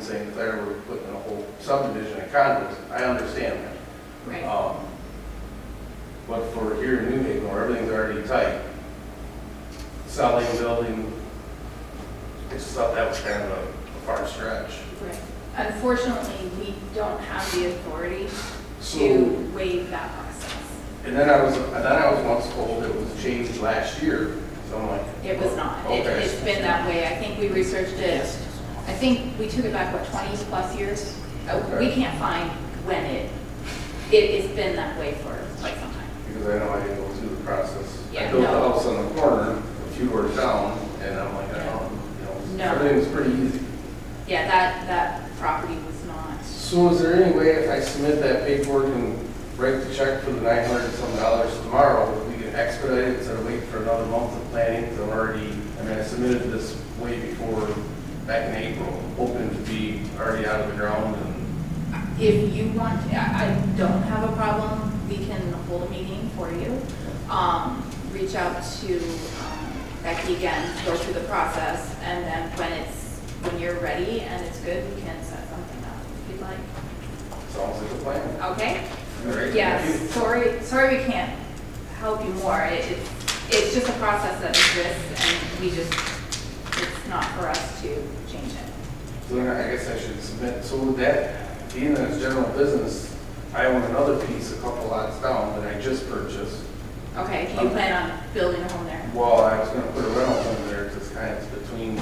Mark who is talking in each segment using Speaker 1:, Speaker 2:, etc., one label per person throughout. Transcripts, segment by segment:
Speaker 1: St. Clair, we're putting in a whole subdivision of condos, I understand that.
Speaker 2: Right.
Speaker 1: Um, But for here in New Haven, where everything's already tight, selling, building, I just thought that was kind of a far stretch.
Speaker 2: Right. Unfortunately, we don't have the authority
Speaker 1: So,
Speaker 2: to waive that process.
Speaker 1: and then I was, and then I was once told it was changed last year, so I'm like.
Speaker 2: It was not. It-
Speaker 1: Okay.
Speaker 2: It's been that way. I think we researched it, I think we took it back, what, 20-plus years? Uh, We
Speaker 1: Okay.
Speaker 2: can't find when it, it, it's been that way for quite some time.
Speaker 1: because I know I didn't go through the process. I
Speaker 2: Yeah,
Speaker 1: built a
Speaker 2: no.
Speaker 1: house on the corner, a few doors down, and I'm like, I don't, you know,
Speaker 2: No.
Speaker 1: everything was pretty easy.
Speaker 2: Yeah, that, that property was not,
Speaker 1: So is there any way if I submit that paperwork and write the check for the nine hundred and some dollars tomorrow, we can expedite it instead of waiting for another month of planning? Because I'm already, I mean, I submitted this way before, back in April, hoping to be already out of the ground and,
Speaker 2: if you want, I I don't have a problem, we can hold a meeting for you. Um, Reach out to um, Becky again, go through the process, and then when it's, when you're ready and it's good, we can set something up if you'd like.
Speaker 1: sounds like a plan.
Speaker 2: Okay?
Speaker 1: All right, thank you.
Speaker 2: Yes, sorry, sorry we can't help you more. It- It's, it's just a process that exists and we just, it's not for us to change it.
Speaker 1: So then I guess I should submit, so with that, being that it's general business, I own another piece a couple lots down that I just purchased.
Speaker 2: Okay, do you plan on building a home there?
Speaker 1: Well, I was gonna put a rental home there, it's kind of between,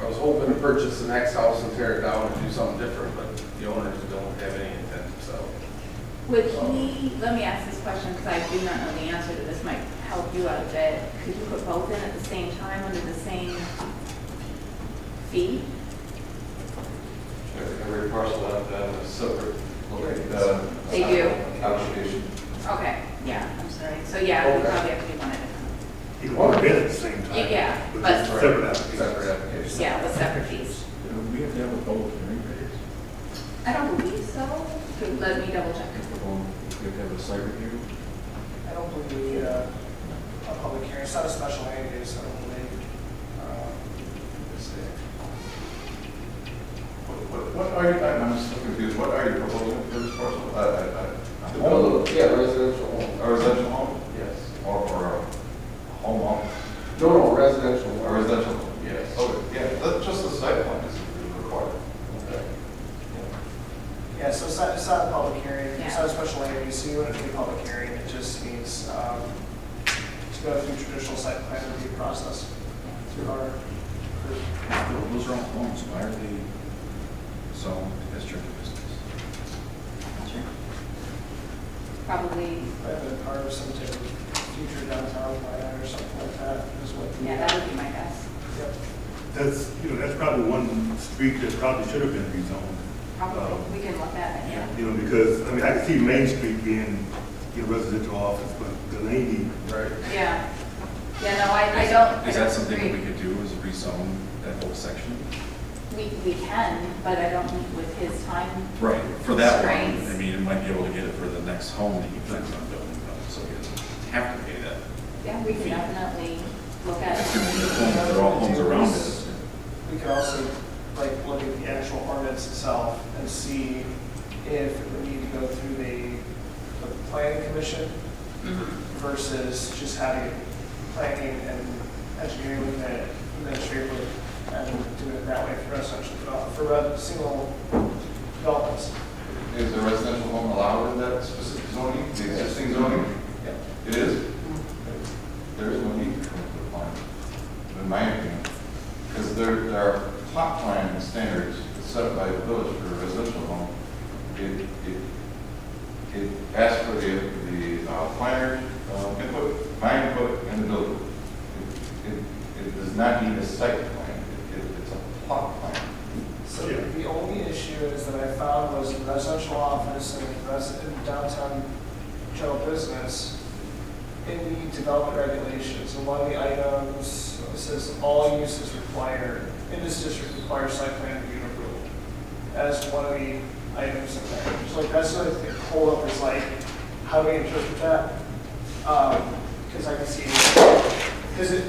Speaker 1: I was hoping to purchase the next house and tear it down and do something different, but the owners don't have any intent, so.
Speaker 2: Would he, let me ask this question because I do not know the answer to this, might help you out a bit. Could you put both in at the same time under the same fee?
Speaker 3: Every parcel out there is separate. Uh,
Speaker 2: They do.
Speaker 3: Application.
Speaker 2: Okay, yeah, I'm sorry. So yeah, we
Speaker 1: Okay.
Speaker 2: probably have to do one at a
Speaker 4: You want to bid at the same
Speaker 2: Yeah,
Speaker 4: time.
Speaker 2: yeah,
Speaker 4: But
Speaker 2: but-
Speaker 4: separate applications.
Speaker 1: Separate
Speaker 2: time.
Speaker 1: application.
Speaker 2: Yeah, with separate fees.
Speaker 5: We have to have a public hearing for this.
Speaker 2: I don't believe so. Could- Let me double check.
Speaker 5: Um, We have to have a site review.
Speaker 6: I don't believe we need a, a public hearing, it's not a special land use, I don't believe. Um, let's see.
Speaker 3: What what are you, I'm I'm still confused, what are you proposing for this parcel? I- I- I-
Speaker 1: The home, Oh, yeah, residential home,
Speaker 3: A residential home
Speaker 1: yes.
Speaker 3: or or a home home?
Speaker 1: No, no, residential
Speaker 3: A
Speaker 1: home.
Speaker 3: residential home?
Speaker 1: Yes.
Speaker 3: Oh, yeah, that's just the site plan is required.
Speaker 1: Okay.
Speaker 6: Yeah, so it's not, it's not a public hearing, it's
Speaker 2: Yeah.
Speaker 6: not a special land use, so you wouldn't need a public hearing, it just needs, um, to go through traditional site plan review process through our group.
Speaker 5: Those are all homes, why are they sold as church business?
Speaker 2: Sure. Probably,
Speaker 6: I've been part of some type of uh, future downtown plan or something like that, is what. the-
Speaker 2: yeah, that would be my guess.
Speaker 6: Yep.
Speaker 4: That's, you know, that's probably one street that probably should have been rezoned.
Speaker 2: Probably,
Speaker 4: Um,
Speaker 2: we can look at it, yeah.
Speaker 4: You know, because, I mean, I can see Main Street being, you know, residential office, but Delaney,
Speaker 1: Right.
Speaker 2: Yeah, yeah, no, I, I don't. I
Speaker 5: Oh. Is that
Speaker 2: don't
Speaker 5: something that
Speaker 2: agree.
Speaker 5: we could do, is rezone that whole section?
Speaker 2: We, we can, but I don't think with his time.
Speaker 5: Right. For that one,
Speaker 2: Constraints.
Speaker 5: I mean, it might be able to get it for the next home that he plans on building, though, so he doesn't have to pay that.
Speaker 2: Yeah, we can definitely look at
Speaker 5: It's
Speaker 2: it.
Speaker 5: gonna be a home, they're all homes around it.
Speaker 6: We could also, like, look at the actual ordinance itself and see if it would need to go through the, the planning commission
Speaker 2: Mhm.
Speaker 6: versus just having planning and engineering look at it administratively and do it that way for residential, develop- for uh, single developments.
Speaker 3: Is a residential home allowed in that specific zoning, the existing zoning?
Speaker 6: Yep.
Speaker 3: It is? There is no need to come to the plan, in my opinion. Because there, there are plot plan standards set by the village for a residential home. It, it, it asks for the, the uh, planner uh, input, my input, and the builder. It, it- it does not need a site plan, It- it- it's a plot plan.
Speaker 6: So
Speaker 4: Yeah.
Speaker 6: the only issue is that I found was the residential office and the resident downtown general business in the development regulations, and one of the items says all uses require, in this district require site plan review and approval. As one of the items in there. So like, that's like the holdup is like, how do we interpret that? Um, cause I can see, cause it,